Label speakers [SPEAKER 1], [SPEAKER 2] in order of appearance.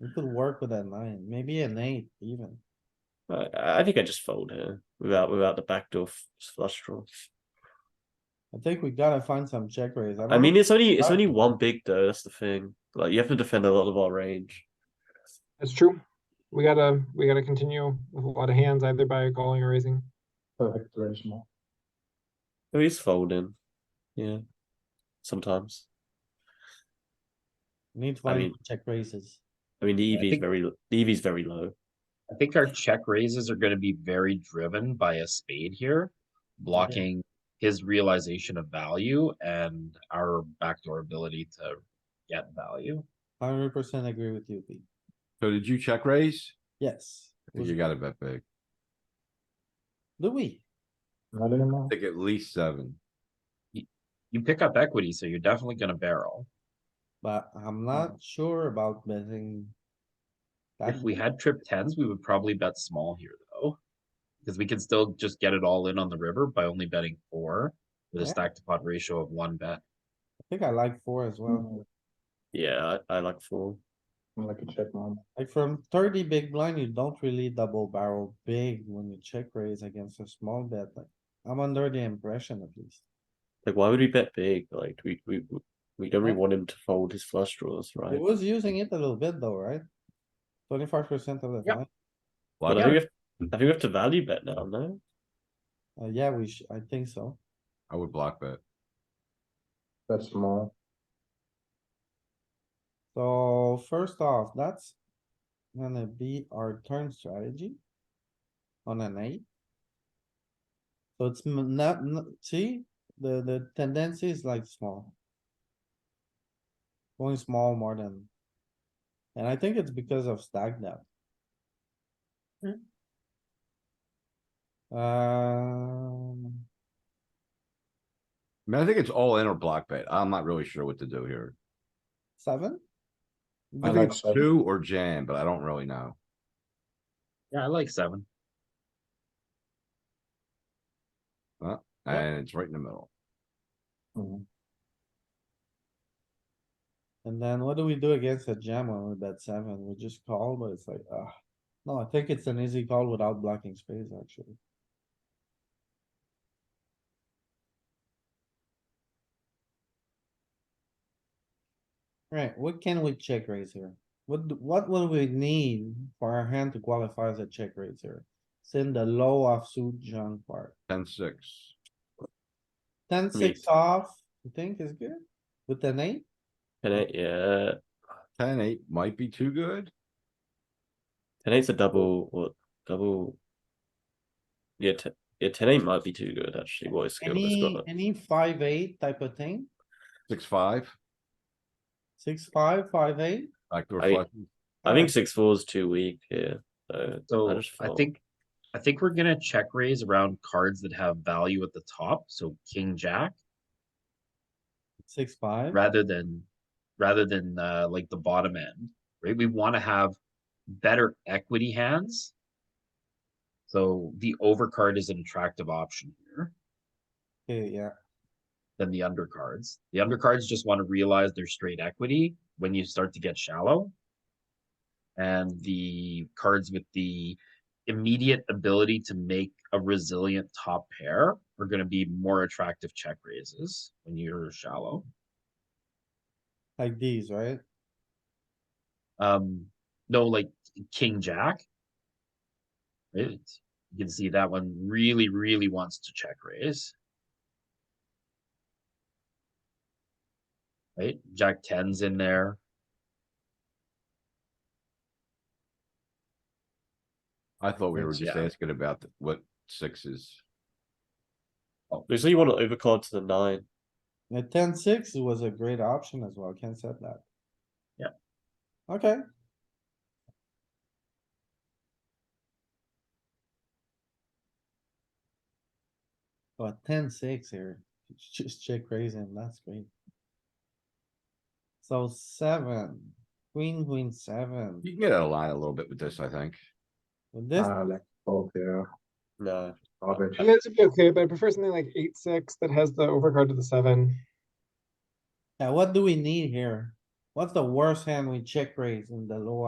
[SPEAKER 1] We could work with a nine, maybe an eight even.
[SPEAKER 2] I, I think I just fold here without without the backdoor f- flush draw.
[SPEAKER 1] I think we gotta find some check raise.
[SPEAKER 2] I mean, it's only it's
[SPEAKER 1] Right.
[SPEAKER 2] only one big though. That's the thing. Like you have to defend a lot of our range.
[SPEAKER 3] It's true. We gotta, we gotta continue with a lot of hands either by calling or raising.
[SPEAKER 4] Perfect range small.
[SPEAKER 2] There is folding. Yeah, sometimes.
[SPEAKER 1] Need to
[SPEAKER 2] I
[SPEAKER 1] find
[SPEAKER 2] mean-
[SPEAKER 1] check raises.
[SPEAKER 2] I mean, the EV is
[SPEAKER 5] think-
[SPEAKER 2] very l- the EV is very low.
[SPEAKER 5] I think our check raises are gonna be very driven by a spade here, blocking his realization of value and our backdoor ability to get value.
[SPEAKER 1] Hundred percent agree with you, B.
[SPEAKER 6] So did you check raise?
[SPEAKER 1] Yes.
[SPEAKER 6] I think You gotta bet big.
[SPEAKER 1] Louis,
[SPEAKER 4] Not anymore.
[SPEAKER 6] I think at least seven.
[SPEAKER 5] You pick up equity, so you're definitely gonna barrel.
[SPEAKER 1] but I'm not sure about betting.
[SPEAKER 5] If
[SPEAKER 1] that
[SPEAKER 5] we
[SPEAKER 1] big.
[SPEAKER 5] had trip tens, we would probably bet small here though. Cause we can still just get it all in on the river by only betting four with a
[SPEAKER 1] Yeah.
[SPEAKER 5] stack to pot ratio of one bet.
[SPEAKER 1] I think I like four as well.
[SPEAKER 2] Yeah, I, I like four.
[SPEAKER 4] I'm like a check man.
[SPEAKER 1] Like from thirty big blind, you don't really double barrel big when you check raise against a small bet. Like, I'm under the impression at least.
[SPEAKER 2] Like, why would we bet big? Like, we we we don't really want him to fold his flush draws,
[SPEAKER 1] He
[SPEAKER 2] right?
[SPEAKER 1] was using it a little bit though, right? Twenty-five percent of the
[SPEAKER 5] Yeah.
[SPEAKER 1] time.
[SPEAKER 2] But
[SPEAKER 6] Lot
[SPEAKER 2] I
[SPEAKER 6] of
[SPEAKER 2] think we
[SPEAKER 6] it.
[SPEAKER 2] have, I think we have to value bet now. No,
[SPEAKER 1] Uh, yeah, we should, I think so.
[SPEAKER 6] I would block bet.
[SPEAKER 4] That's small.
[SPEAKER 1] So first off, that's gonna be our turn strategy. On an eight. So it's m- not, n- see, the, the tendency is like small. Going small more than. And I think it's because of stack depth. Um,
[SPEAKER 6] I mean, I think it's all in or block bet. I'm not really sure what to do here.
[SPEAKER 1] seven?
[SPEAKER 6] I
[SPEAKER 4] I
[SPEAKER 6] think
[SPEAKER 4] like
[SPEAKER 6] it's
[SPEAKER 4] seven.
[SPEAKER 6] two or jam, but I don't really know.
[SPEAKER 5] Yeah, I like seven.
[SPEAKER 1] Yeah.
[SPEAKER 6] And it's right in the middle.
[SPEAKER 4] Mhm.
[SPEAKER 1] And then what do we do against a jam when we bet seven? We just call, but it's like, ah. No, I think it's an easy call without blocking space, actually. Right, what can we check raise here? What, do- what will we need for our hand to qualify as a check raise here? It's in the low offsuit junk part.
[SPEAKER 6] Ten, six.
[SPEAKER 1] Ten, six off, you think is good? With an eight?
[SPEAKER 2] ten eight. Yeah,
[SPEAKER 6] Ten, eight might be too good.
[SPEAKER 2] ten eight's a double. What double? Yeah, ten, yeah, ten eight might be too good actually. What is skill? It's
[SPEAKER 1] Any,
[SPEAKER 2] got
[SPEAKER 1] any five, eight type of thing?
[SPEAKER 6] Six, five,
[SPEAKER 1] Six, five, five, eight?
[SPEAKER 6] backdoor
[SPEAKER 2] I-
[SPEAKER 6] flush.
[SPEAKER 2] I think six four is too weak here. So, I,
[SPEAKER 5] So
[SPEAKER 2] just
[SPEAKER 5] I
[SPEAKER 2] fold.
[SPEAKER 5] think, I think we're gonna check raise around cards that have value at the top, so king, jack,
[SPEAKER 1] Six, five,
[SPEAKER 5] rather than, rather than, uh, like the bottom end, right? We wanna have better equity hands. So the overcard is an attractive option here
[SPEAKER 1] okay, yeah,
[SPEAKER 5] than the undercards. The undercards just wanna realize their straight equity when you start to get shallow. And the cards with the immediate ability to make a resilient top pair are gonna be more attractive check raises when you're shallow.
[SPEAKER 1] like these, right?
[SPEAKER 5] Um, no, like king jack. Right? You can see that one really, really wants to check raise. Right? Jack tens in there.
[SPEAKER 6] I thought we were
[SPEAKER 5] Six,
[SPEAKER 6] just
[SPEAKER 5] yeah.
[SPEAKER 6] asking about the- what sixes.
[SPEAKER 2] Looks like you want to overcard to the nine.
[SPEAKER 1] The ten, six was a great option as well, Ken said that.
[SPEAKER 5] Yeah.
[SPEAKER 1] Okay. But ten, six here, It's just check raising, that's great. So seven, queen, queen, seven,
[SPEAKER 6] You can get out of line a little bit with this, I think.
[SPEAKER 1] with this,
[SPEAKER 4] I like both here.
[SPEAKER 2] No,
[SPEAKER 4] Garbage.
[SPEAKER 3] I mean, this would be okay, but I prefer something like eight, six that has the overcard to the seven.
[SPEAKER 1] yeah, what do we need here? What's the worst hand we check raise in the low